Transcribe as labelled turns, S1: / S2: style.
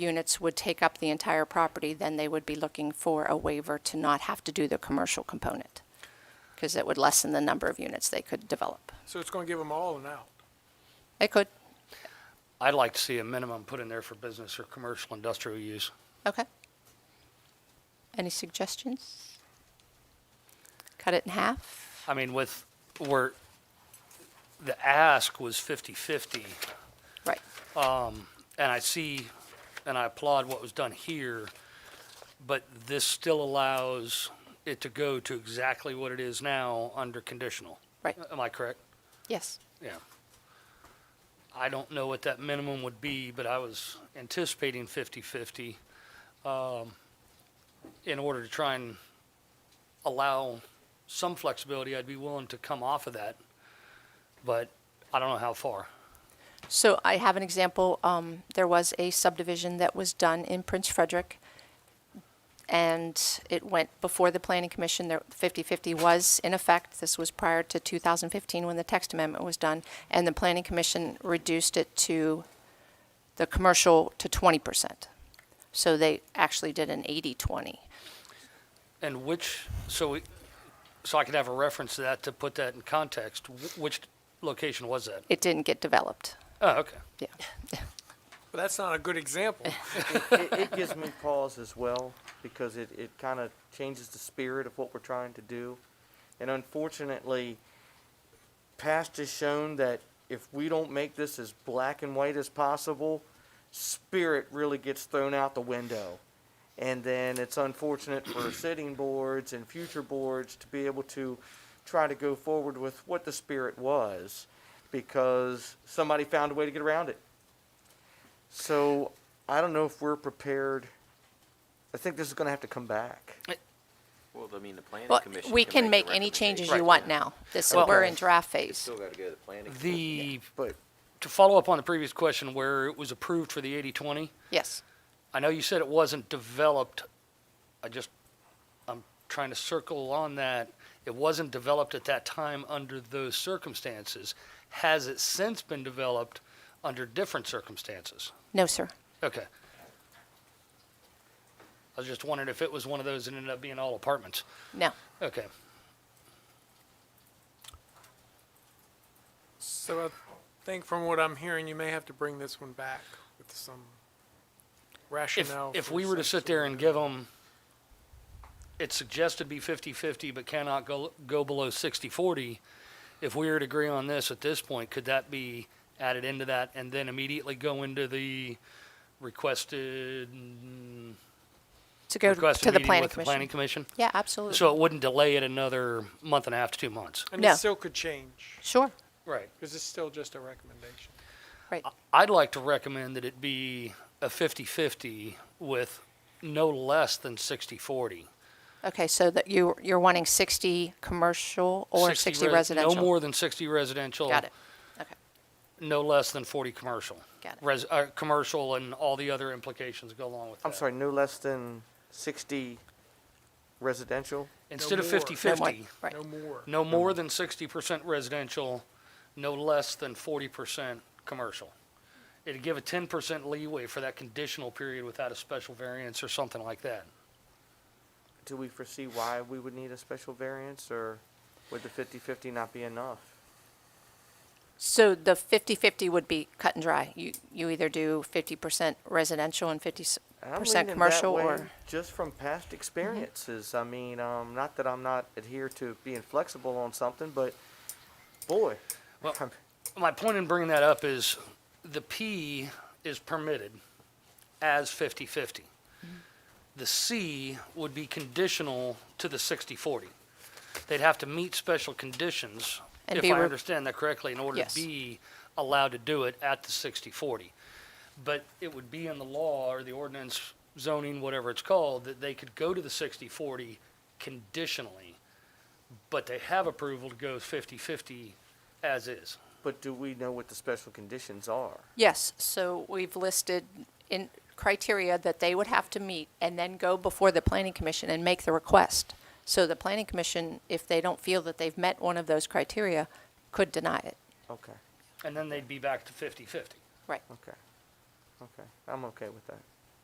S1: units would take up the entire property, then they would be looking for a waiver to not have to do the commercial component, because it would lessen the number of units they could develop.
S2: So it's going to give them all an out.
S1: It could,
S3: I'd like to see a minimum put in there for business or commercial industrial use.
S1: okay. Any suggestions? Cut it in half?
S3: I mean, with, where the ask was 50/50,
S1: Right.
S3: and I see, and I applaud what was done here, but this still allows it to go to exactly what it is now under conditional.
S1: Right.
S3: Am I correct?
S1: Yes.
S3: Yeah. I don't know what that minimum would be, but I was anticipating 50/50 um, in order to try and allow some flexibility. I'd be willing to come off of that, but I don't know how far.
S1: So I have an example. Um, there was a subdivision that was done in Prince Frederick, and it went before the Planning Commission. There, 50-50 was in effect. This was prior to 2015 when the text amendment was done, and the Planning Commission reduced it to the commercial to 20%. So they actually did an 80-20.
S3: And which, so we, so I could have a reference to that to put that in context. Wh- Which location was that?
S1: It didn't get developed.
S3: Oh, okay.
S1: Yeah.
S2: But that's not a good example.
S4: it, it gives me pause as well because it, it kind of changes the spirit of what we're trying to do. And unfortunately, past has shown that if we don't make this as black and white as possible, spirit really gets thrown out the window. And then it's unfortunate for sitting boards and future boards to be able to try to go forward with what the spirit was because somebody found a way to get around it. So I don't know if we're prepared. I think this is going to have to come back.
S1: Eh,
S5: Well, I mean, the planning
S1: Well,
S5: commission.
S1: we
S5: the
S1: can make any changes you
S5: recommendation.
S1: want now. This,
S3: Well-
S1: we're in draft
S5: It's
S1: phase.
S5: Still gotta go to the planning.
S3: The,
S4: But
S3: to follow up on the previous question where it was approved for the 80/20,
S1: Yes.
S3: I know you said it wasn't developed. I just, I'm trying to circle on that. It wasn't developed at that time under those circumstances. Has it since been developed under different circumstances?
S1: No, sir.
S3: Okay. I was just wondering if it was one of those that ended up being all apartments.
S1: No.
S3: Okay.
S2: So I think from what I'm hearing, you may have to bring this one back with some
S3: If,
S2: rationale.
S3: if
S2: for
S3: we were to
S2: some
S3: sit there
S2: sort
S3: and
S2: of-
S3: give them, it's suggested be 50/50, but cannot go, go below 60/40, if we were to agree on this at this point, could that be added into that and then immediately go into the requested,
S1: To go to
S3: requested
S1: to the
S3: meeting
S1: planning
S3: with the planning
S1: commission.
S3: commission?
S1: Yeah, absolutely.
S3: So it wouldn't delay it another month and a half to two months?
S2: And
S1: No.
S2: it still could change,
S1: Sure,
S3: Right.
S2: because it's still just a recommendation.
S1: right.
S3: I'd like to recommend that it be a 50/50 with no less than 60/40.
S1: Okay, so that you, you're wanting 60 commercial or 60
S3: res-
S1: residential?
S3: No more than 60 residential.
S1: Got it. Okay,
S3: No less than 40 commercial.
S1: Got it.
S3: Res, uh, commercial and all the other implications go along
S1: uh,
S3: with that.
S4: I'm sorry, no less than 60 residential.
S3: Instead of
S2: more. No
S3: 50/50,
S1: right.
S2: No more.
S3: no more than 60% residential, no less than 40% commercial. It'd give a 10% leeway for that conditional period without a special variance or something like that.
S4: Do we foresee why we would need a special variance, or would the 50-50 not be enough?
S1: So the 50/50 would be cut and dry. You, you either do 50% residential and 50%
S4: And I'm leaning that
S1: commercial
S4: way
S1: or? Mm-hmm.
S4: just from past experiences. I mean, um, not that I'm not adhere to being flexible on something, but boy,
S3: Well, my point in bringing that up is the P is permitted as 50/50. The C would be conditional to the 60/40. They'd have to meet special conditions,
S1: And
S3: if
S1: be
S3: I
S1: re-
S3: understand that correctly, in order
S1: Yes.
S3: to be allowed to do it at the 60/40. But it would be in the law or the ordinance zoning, whatever it's called, that they could go to the 60/40 conditionally, but they have approval to go 50/50 as is.
S4: but do we know what the special conditions are?
S1: Yes, so we've listed in criteria that they would have to meet and then go before the planning commission and make the request. So the planning commission, if they don't feel that they've met one of those criteria, could deny it.
S4: Okay,
S3: And then they'd be back to 50/50.
S1: Right.
S4: okay, okay. I'm okay with that.